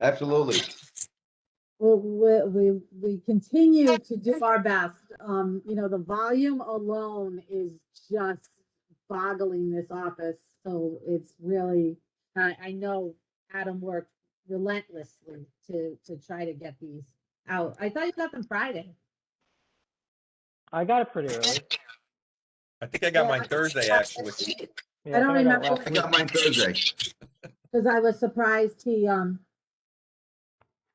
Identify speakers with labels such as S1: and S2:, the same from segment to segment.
S1: Absolutely.
S2: Well, we, we, we continue to do our best. Um, you know, the volume alone is just boggling this office. So it's really, I, I know Adam worked relentlessly to, to try to get these out. I thought you got them Friday.
S3: I got it pretty early.
S4: I think I got
S2: Yeah,
S4: mine Thursday, actually.
S3: Yeah,
S2: I don't
S3: think got
S2: remember.
S3: last
S1: I
S3: week.
S1: got mine Thursday.
S2: Because I was surprised he, um,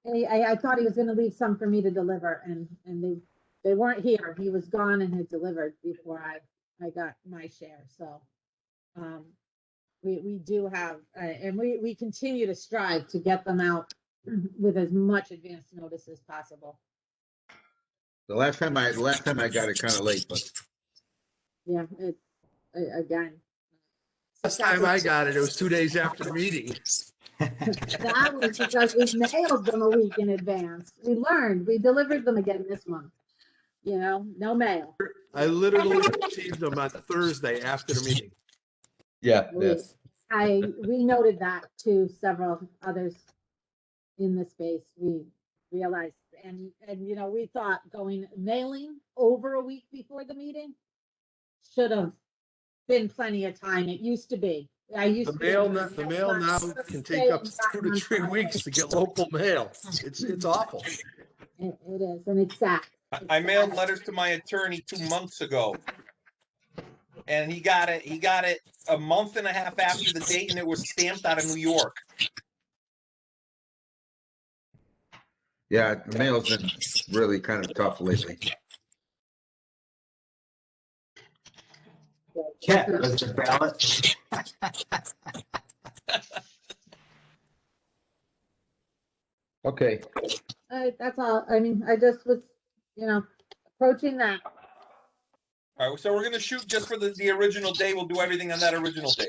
S2: I, I, I thought he was gonna leave some for me to deliver and, and they, they weren't here. He was gone and had delivered before I, I got my share, so. Um, we, we do have, uh, and we, we continue to strive to get them out with as much advance notice as possible.
S1: The last time I, the last time I got it kind of late, but
S2: Yeah, it, a- again.
S5: Last time I got it, it was two days after the meeting.
S2: That was because we mailed them a week in advance. We learned, we delivered them again this month. You know, no mail.
S5: I literally received them on Thursday after the meeting.
S1: yeah,
S2: We- I, we noted that to several others in the space. We realized, and, and, you know, we thought going mailing over a week before the meeting should have been plenty of time. It used to be. I used
S5: The
S2: to. be
S5: mail,
S2: able
S5: no-
S2: to
S5: the
S2: mail
S5: mail now
S2: lots of
S5: can
S2: days
S5: take up
S2: back
S5: two to
S2: on
S5: three
S2: Friday.
S5: weeks to get local mail. It's, it's awful.
S2: It it is, and it's sad.
S4: I- I mailed letters to my attorney two months ago. And he got it, he got it a month and a half after the date and it was stamped out of New York.
S1: Yeah, the mail's been really kind of tough lately.
S6: Yeah, Mr. Ballot.
S1: Okay,
S2: Uh, that's all. I mean, I just was, you know, approaching that.
S4: All right, so we're gonna shoot just for the, the original day. We'll do everything on that original day.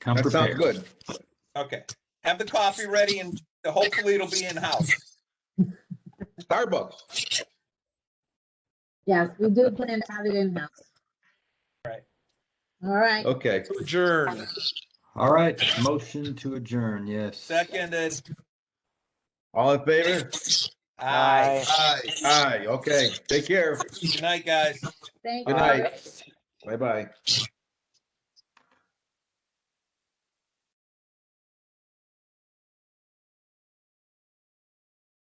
S6: Come
S1: that sounds
S6: prepared.
S1: good.
S4: Okay. Have the coffee ready and hopefully it'll be in-house.
S1: Starbucks.
S2: Yes, we do plan to have it in-house.
S4: Right.
S2: All right.
S1: Okay,
S4: Adjourn.
S6: All right, motion to adjourn, yes.
S4: Seconded.
S1: all in favor?
S4: Aye.
S1: Aye. Aye, okay. Take care.
S4: Good night, guys.
S2: Thank you.
S1: Good night. Bye-bye.